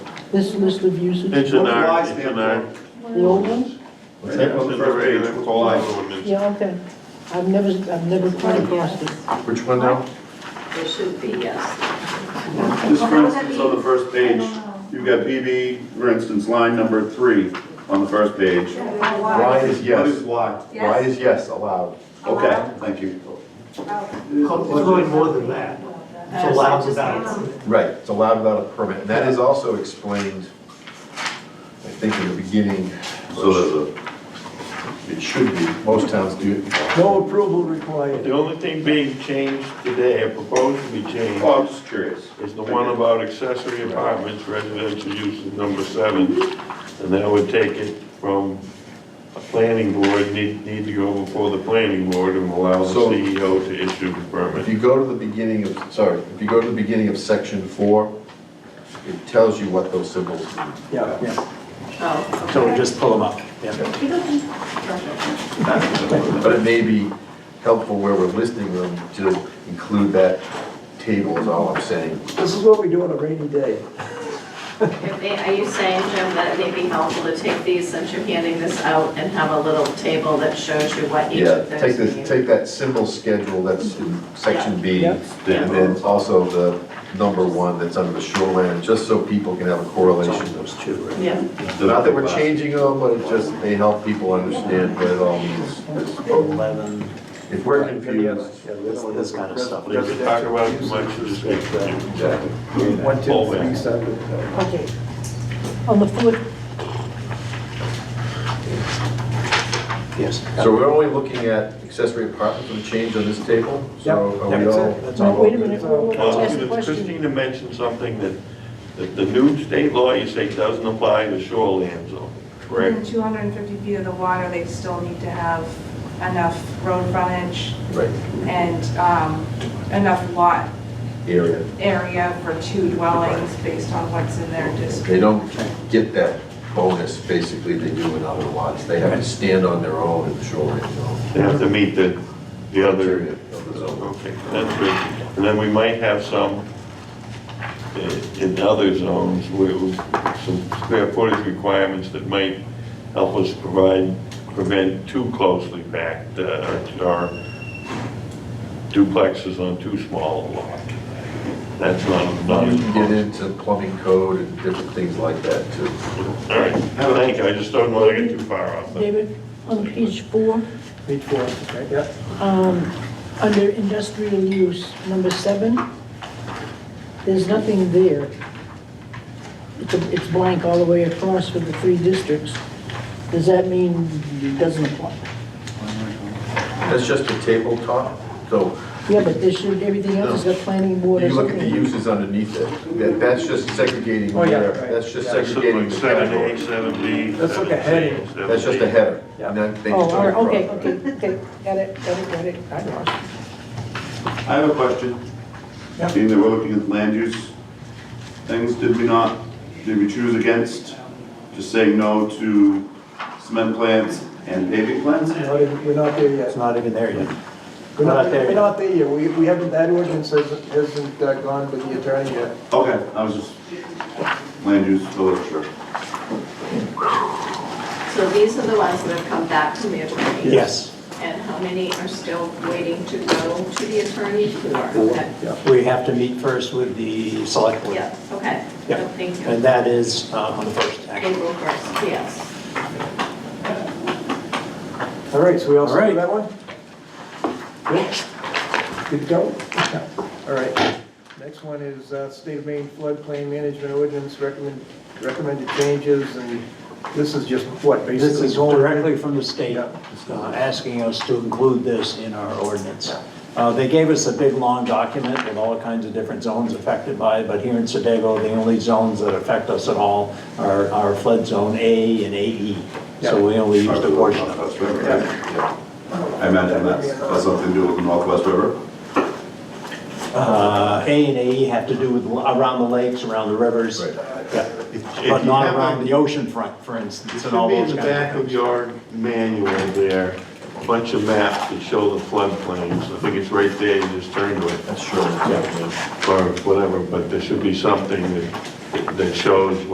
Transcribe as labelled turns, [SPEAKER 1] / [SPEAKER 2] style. [SPEAKER 1] this list of uses,
[SPEAKER 2] It's an
[SPEAKER 3] What's
[SPEAKER 2] R,
[SPEAKER 3] Y
[SPEAKER 2] it's
[SPEAKER 3] stand
[SPEAKER 2] an
[SPEAKER 3] for?
[SPEAKER 2] R.
[SPEAKER 1] the old ones?
[SPEAKER 3] What's that?
[SPEAKER 2] It's
[SPEAKER 3] On
[SPEAKER 2] in
[SPEAKER 3] the
[SPEAKER 2] the
[SPEAKER 3] first page,
[SPEAKER 2] range,
[SPEAKER 3] what's
[SPEAKER 2] it's
[SPEAKER 3] Y?
[SPEAKER 2] all ordinance.
[SPEAKER 1] Yeah, okay. I've never, I've never come across it.
[SPEAKER 3] Which one now?
[SPEAKER 4] There should be, yes.
[SPEAKER 2] This, for instance, on the first page, you've got BB, for instance, line number three on the first page.
[SPEAKER 3] Why
[SPEAKER 5] Why?
[SPEAKER 3] is
[SPEAKER 2] What is
[SPEAKER 3] yes,
[SPEAKER 2] Y?
[SPEAKER 3] why is yes allowed?
[SPEAKER 2] Okay, thank you.
[SPEAKER 6] It's really more than that. It's allowed without. a permit.
[SPEAKER 3] Right, it's allowed without a permit, and that is also explained, I think, in the beginning.
[SPEAKER 2] So there's
[SPEAKER 3] It should be, most towns do.
[SPEAKER 7] No approval required.
[SPEAKER 5] The only thing being changed today, or proposed to be
[SPEAKER 2] a,
[SPEAKER 5] changed,
[SPEAKER 2] oh, I'm just curious.
[SPEAKER 5] is the one about accessory apartments, residential uses, number seven. And that would take it from a planning board, need, need to go before the planning board and allow the
[SPEAKER 3] So-
[SPEAKER 5] CEO to issue the
[SPEAKER 3] If
[SPEAKER 5] permit.
[SPEAKER 3] you go to the beginning of, sorry, if you go to the beginning of section four, it tells you what those symbols mean.
[SPEAKER 7] Yeah, yeah.
[SPEAKER 4] Oh, okay.
[SPEAKER 7] So we just pull them up. Yeah.
[SPEAKER 3] But it may be helpful where we're listing them to include that table is all I'm saying.
[SPEAKER 7] This is what we do on a rainy day.
[SPEAKER 4] If they- Are you saying, Jim, that it may be helpful to take these, since you're handing this out, and have a little table that shows you what each
[SPEAKER 3] Yeah,
[SPEAKER 4] of
[SPEAKER 3] take
[SPEAKER 4] those
[SPEAKER 3] this,
[SPEAKER 4] means?
[SPEAKER 3] take that symbol schedule that's in section B,
[SPEAKER 7] Yeah.
[SPEAKER 3] and then also the number one that's under the shoreline, just so people can have a correlation.
[SPEAKER 7] Those two, right?
[SPEAKER 4] Yeah,
[SPEAKER 3] Not that we're changing them, but it just, they help people understand what it all means.
[SPEAKER 7] Eleven.
[SPEAKER 3] If we're confused,
[SPEAKER 7] Yeah, this, this kind of stuff.
[SPEAKER 5] They could talk about it much of this
[SPEAKER 8] One, two, three, seven.
[SPEAKER 1] Okay. On the fourth,
[SPEAKER 7] Yes.
[SPEAKER 3] so we're only looking at accessory apartments with a change on this table? So are we
[SPEAKER 7] That's
[SPEAKER 3] all?
[SPEAKER 7] it, that's
[SPEAKER 1] now,
[SPEAKER 7] all.
[SPEAKER 1] wait a minute, wait, wait,
[SPEAKER 5] Well,
[SPEAKER 1] ask a question.
[SPEAKER 5] Christina mentioned something that, that the new state law, you say, doesn't apply to shoreline zone,
[SPEAKER 9] Within
[SPEAKER 5] correct?
[SPEAKER 9] 250 feet of the water, they still need to have enough road frontage
[SPEAKER 3] Right,
[SPEAKER 9] and um, enough lot
[SPEAKER 3] area.
[SPEAKER 9] area for two dwellings based on what's in their district.
[SPEAKER 3] They don't get that bonus, basically, they do in other lots. They have to stand on their own in the shoreline zone.
[SPEAKER 1] Mm-hmm.
[SPEAKER 5] They have to meet the, the other
[SPEAKER 3] Criteria of the zone.
[SPEAKER 5] Okay, that's good. And then we might have some i- in other zones where we- some square footage requirements that might help us provide, prevent too closely packed, uh, or duplexes on too small a lot. That's not, not
[SPEAKER 3] You
[SPEAKER 5] as
[SPEAKER 3] can get into plumbing code and different things like that too.
[SPEAKER 5] All right, thank you, I just don't want to get too far off. the-
[SPEAKER 1] David, on page four,
[SPEAKER 7] Page four, okay, yeah.
[SPEAKER 1] um, under industrial use, number seven, there's nothing there. It's a- It's blank all the way across for the three districts. Does that mean it doesn't apply?
[SPEAKER 3] That's just a tabletop, so
[SPEAKER 1] Yeah, but there should, everything else is got planning board
[SPEAKER 3] you
[SPEAKER 1] or
[SPEAKER 3] look at
[SPEAKER 1] something.
[SPEAKER 3] the uses underneath it. That, that's just segregating
[SPEAKER 7] Oh, yeah,
[SPEAKER 3] where,
[SPEAKER 7] right.
[SPEAKER 3] that's just
[SPEAKER 7] Yeah. So,
[SPEAKER 3] segregating
[SPEAKER 5] Like
[SPEAKER 3] the
[SPEAKER 5] Seven A,
[SPEAKER 3] category.
[SPEAKER 5] seven B.
[SPEAKER 7] That's like a
[SPEAKER 5] 7C,
[SPEAKER 7] heading.
[SPEAKER 5] 7D.
[SPEAKER 3] That's just a header.
[SPEAKER 7] Yeah.
[SPEAKER 3] and then they
[SPEAKER 1] Oh,
[SPEAKER 3] just
[SPEAKER 1] all right,
[SPEAKER 3] go
[SPEAKER 1] okay,
[SPEAKER 3] across.
[SPEAKER 1] okay, okay, got it, got it, got it, I lost it.
[SPEAKER 2] I have a question.
[SPEAKER 7] Yeah.
[SPEAKER 2] Being that we're looking at land use things, did we not, did we choose against just saying no to cement plants and paving plants?
[SPEAKER 8] We're not even- we're not there
[SPEAKER 7] It's
[SPEAKER 8] yet.
[SPEAKER 7] not even there yet.
[SPEAKER 8] We're
[SPEAKER 7] Not
[SPEAKER 8] not,
[SPEAKER 7] there
[SPEAKER 8] we're
[SPEAKER 7] yet.
[SPEAKER 8] not there yet. We, we haven't, that ordinance hasn't, hasn't uh, gone with the attorney yet.
[SPEAKER 2] Okay, I was just, land use village, sure.
[SPEAKER 4] so these are the ones that have come back to the attorney?
[SPEAKER 7] Yes,
[SPEAKER 4] And how many are still waiting to go to the attorney for? Okay.
[SPEAKER 7] we have to meet first with the select board.
[SPEAKER 4] Yeah, okay,
[SPEAKER 7] Yeah.
[SPEAKER 4] thank you.
[SPEAKER 7] And that is uh, on the first, actually.
[SPEAKER 4] April 1st, yes.
[SPEAKER 8] All right, so we all
[SPEAKER 7] All
[SPEAKER 8] set with
[SPEAKER 7] right.
[SPEAKER 8] that one? Good? Good to go? Yeah. All right. Next one is uh, State of Maine floodplain management ordinance recommend, recommended changes, and this is just what, basically?
[SPEAKER 7] This is
[SPEAKER 8] going in?
[SPEAKER 7] directly from the state,
[SPEAKER 8] Yeah.
[SPEAKER 7] uh, asking us to include this in our ordinance. Uh, They gave us a big, long document with all kinds of different zones affected by it, but here in Sedago, the only zones that affect us at all are are flood zone A and AE. So
[SPEAKER 8] Yeah.
[SPEAKER 7] we only used a portion of it.
[SPEAKER 2] Northwest River, right? I imagine that's, that's something to do with the Northwest River.
[SPEAKER 7] Uh, A and AE have to do with around the lakes, around the rivers,
[SPEAKER 3] Right.
[SPEAKER 7] yeah.
[SPEAKER 5] If
[SPEAKER 7] but
[SPEAKER 5] you
[SPEAKER 7] not
[SPEAKER 5] have a-
[SPEAKER 7] around the ocean front, for instance,
[SPEAKER 5] It
[SPEAKER 7] and all
[SPEAKER 5] should be in
[SPEAKER 7] those
[SPEAKER 5] the
[SPEAKER 7] kinds of
[SPEAKER 5] back
[SPEAKER 7] things.
[SPEAKER 5] of your manual there, a bunch of maps that show the floodplains. I think it's right there, you just turn to it,
[SPEAKER 3] That's sure.
[SPEAKER 5] or whatever, but there should be something that, that shows